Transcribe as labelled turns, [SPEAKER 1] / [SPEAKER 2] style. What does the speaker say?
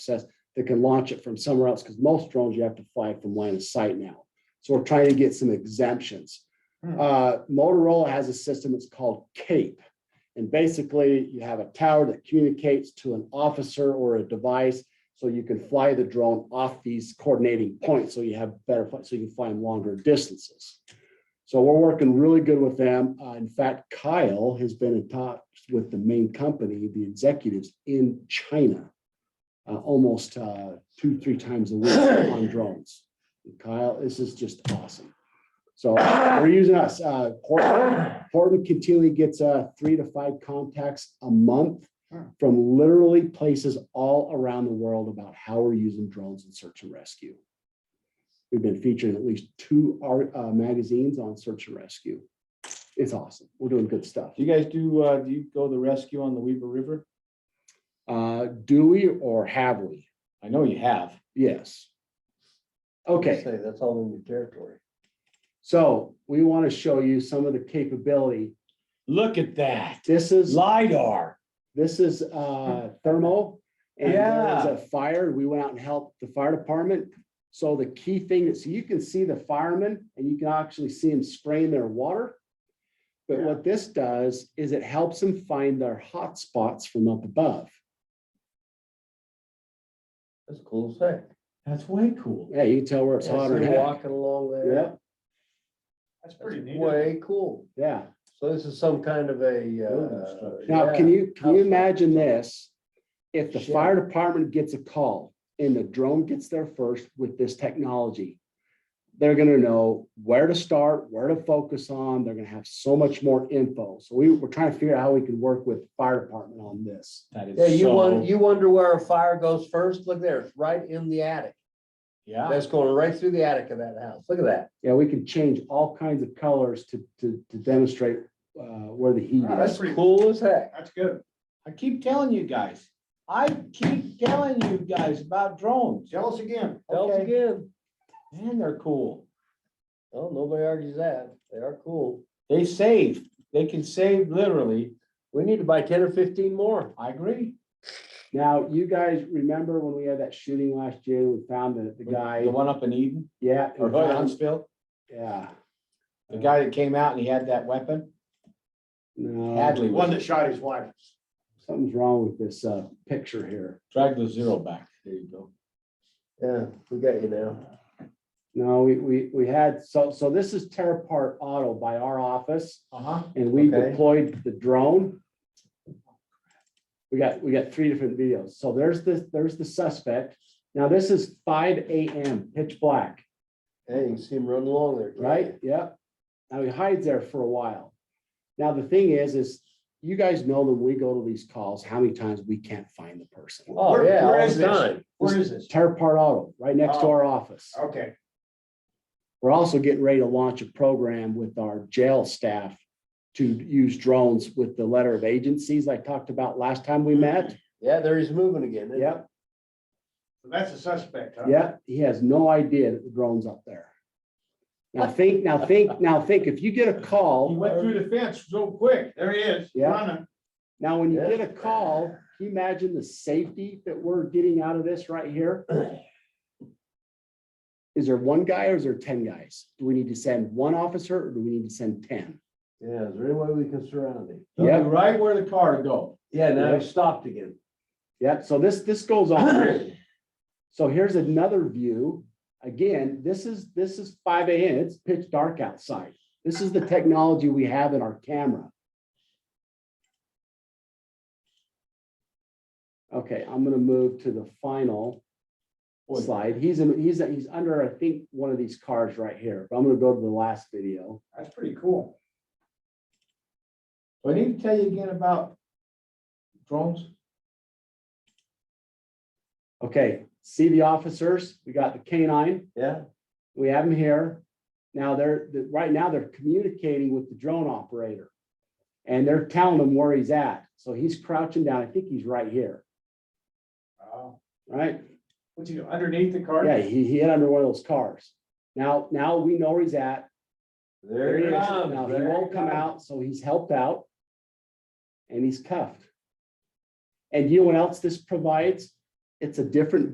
[SPEAKER 1] access that can launch it from somewhere else, because most drones you have to fly from line of sight now. So we're trying to get some exemptions.
[SPEAKER 2] Hmm.
[SPEAKER 1] Uh, Motorola has a system that's called CAPE. And basically, you have a tower that communicates to an officer or a device, so you can fly the drone off these coordinating points, so you have better, flight- so you can find longer distances. So we're working really good with them. Uh, in fact, Kyle has been in talks with the main company, the executives in China. uh, almost, uh, two, three times a week on drones. Kyle, this is just awesome. So we're using us, uh, Portland, Portland continually gets, uh, three to five contacts a month
[SPEAKER 2] Hmm.
[SPEAKER 1] from literally places all around the world about how we're using drones in search and rescue. We've been featured in at least two art, uh, magazines on search and rescue. It's awesome. We're doing good stuff.
[SPEAKER 2] Do you guys do, uh, do you go to the rescue on the Weaver River?
[SPEAKER 1] Uh, do we or have we?
[SPEAKER 2] I know you have.
[SPEAKER 1] Yes. Okay.
[SPEAKER 3] Say, that's all in your territory.
[SPEAKER 1] So we want to show you some of the capability.
[SPEAKER 2] Look at that.
[SPEAKER 1] This is,
[SPEAKER 2] LiDAR.
[SPEAKER 1] this is uh thermal. And there was
[SPEAKER 2] Yeah.
[SPEAKER 1] a fire. We went out and helped the fire department. So the key thing is you can see the firemen and you can actually see them spraying their water. But
[SPEAKER 2] Yeah.
[SPEAKER 1] what this does is it helps them find their hot spots from up above.
[SPEAKER 3] That's cool as heck.
[SPEAKER 2] That's way cool.
[SPEAKER 1] Yeah, you can tell where it's
[SPEAKER 3] Yeah,
[SPEAKER 1] hot or
[SPEAKER 3] so
[SPEAKER 1] not.
[SPEAKER 3] Walking along there.
[SPEAKER 1] Yeah,
[SPEAKER 2] That's
[SPEAKER 3] That's way cool.
[SPEAKER 1] yeah.
[SPEAKER 3] So this is some kind of
[SPEAKER 2] Building
[SPEAKER 3] a.
[SPEAKER 2] structure.
[SPEAKER 3] uh,
[SPEAKER 1] Now,
[SPEAKER 3] yeah.
[SPEAKER 1] can you, can you
[SPEAKER 3] Outside.
[SPEAKER 1] imagine this? If the
[SPEAKER 3] Shit.
[SPEAKER 1] fire department gets a call and the drone gets there first with this technology, they're gonna know where to start, where to focus on. They're gonna have so much more info. So we, we're trying to figure out how we can work with the fire department on this.
[SPEAKER 2] That
[SPEAKER 3] Yeah,
[SPEAKER 2] is
[SPEAKER 3] you
[SPEAKER 2] so,
[SPEAKER 3] wonder, you wonder where a fire goes first? Look there, it's right in the attic.
[SPEAKER 2] yeah,
[SPEAKER 3] That's going right through the attic of that house. Look at that.
[SPEAKER 1] Yeah, we can change all kinds of colors to, to, to demonstrate uh, where the heat
[SPEAKER 2] Wow,
[SPEAKER 1] is.
[SPEAKER 3] Ah, That's cool as heck.
[SPEAKER 4] That's good.
[SPEAKER 2] I keep telling you guys. I keep telling you guys about drones.
[SPEAKER 4] Tell us again.
[SPEAKER 3] Tell us
[SPEAKER 2] Okay.
[SPEAKER 3] again.
[SPEAKER 2] Man, they're cool.
[SPEAKER 3] Oh, nobody argues that. They are cool.
[SPEAKER 2] They save. They can save literally.
[SPEAKER 3] We need to buy ten or fifteen more.
[SPEAKER 2] I agree.
[SPEAKER 1] Now, you guys remember when we had that shooting last year, we found the, the guy,
[SPEAKER 2] The one up in Eden
[SPEAKER 1] yeah. we
[SPEAKER 2] or
[SPEAKER 1] found-
[SPEAKER 2] Huntsville,
[SPEAKER 1] Yeah.
[SPEAKER 2] the guy that came out and he had that weapon.
[SPEAKER 1] No.
[SPEAKER 2] Hadley
[SPEAKER 4] The one
[SPEAKER 2] was
[SPEAKER 4] that shot his wife.
[SPEAKER 1] something's wrong with this uh picture here.
[SPEAKER 2] drag the zero back. There you go.
[SPEAKER 3] Yeah, we got you now.
[SPEAKER 1] No, we we we had, so so this is tear apart auto by our office
[SPEAKER 2] Uh-huh.
[SPEAKER 1] and we
[SPEAKER 3] Okay.
[SPEAKER 1] deployed the drone. We got, we got three different videos. So there's this, there's the suspect. Now, this is five AM, pitch black,
[SPEAKER 3] Hey, you can see him running along there. can't
[SPEAKER 1] right? Yep. Now he hides there for a while. Now, the thing is, is you guys know that we go to these calls, how many times we can't find the person.
[SPEAKER 3] you? Oh,
[SPEAKER 4] Where-
[SPEAKER 3] yeah,
[SPEAKER 4] where
[SPEAKER 3] all
[SPEAKER 4] is
[SPEAKER 3] the
[SPEAKER 4] this?
[SPEAKER 3] time.
[SPEAKER 4] Where is this?
[SPEAKER 1] Tear apart auto, right next to
[SPEAKER 4] Oh.
[SPEAKER 1] our office.
[SPEAKER 4] Okay,
[SPEAKER 1] We're also getting ready to launch a program with our jail staff to use drones with the letter of agencies I talked about last time we met.
[SPEAKER 3] Yeah, there he's moving again. isn't he?
[SPEAKER 1] Yep,
[SPEAKER 4] so that's a suspect, huh?
[SPEAKER 1] yep. He has no idea that the drone's up there. Now think, now think, now think, if you get a
[SPEAKER 2] He
[SPEAKER 1] call,
[SPEAKER 2] went through the fence so quick.
[SPEAKER 4] There he is.
[SPEAKER 1] Yeah.
[SPEAKER 4] running.
[SPEAKER 1] now when you
[SPEAKER 3] Yeah.
[SPEAKER 1] get a call, can you imagine the safety that we're getting out of this right here? Is there one guy or is there ten guys? Do we need to send one officer or do we need to send ten?
[SPEAKER 3] Yeah, is there any way we can surround him?
[SPEAKER 2] He'll be
[SPEAKER 1] Yep.
[SPEAKER 2] Right where the car go.
[SPEAKER 3] Yeah,
[SPEAKER 1] Yeah.
[SPEAKER 3] now he's stopped again.
[SPEAKER 1] Yep, so this, this goes on. So here's another view. Again, this is, this is five AM. It's pitch dark outside. This is the technology we have in our camera. Okay, I'm gonna move to the final
[SPEAKER 2] Boy,
[SPEAKER 1] slide. He's in, he's, he's under, I think, one of these cars right here. But I'm gonna go to the last video.
[SPEAKER 4] That's pretty cool.
[SPEAKER 2] Do I need to tell you again about drones?
[SPEAKER 1] Okay, see the officers? We got the canine.
[SPEAKER 3] Yeah,
[SPEAKER 1] We have them here. Now they're, the- right now they're communicating with the drone operator. And they're telling him where he's at. So he's crouching down. I think he's right here,
[SPEAKER 4] Wow.
[SPEAKER 1] right?
[SPEAKER 4] Oh, What's he, do, underneath the car?
[SPEAKER 1] Yeah, he, he hit under one of those cars. Now, now we know where he's at.
[SPEAKER 3] there
[SPEAKER 1] There
[SPEAKER 3] he
[SPEAKER 1] he is.
[SPEAKER 4] Ah,
[SPEAKER 3] comes.
[SPEAKER 1] Now, he
[SPEAKER 3] there
[SPEAKER 1] won't come
[SPEAKER 3] comes.
[SPEAKER 1] out, so he's helped out. And he's cuffed. And you know what else this provides? It's a different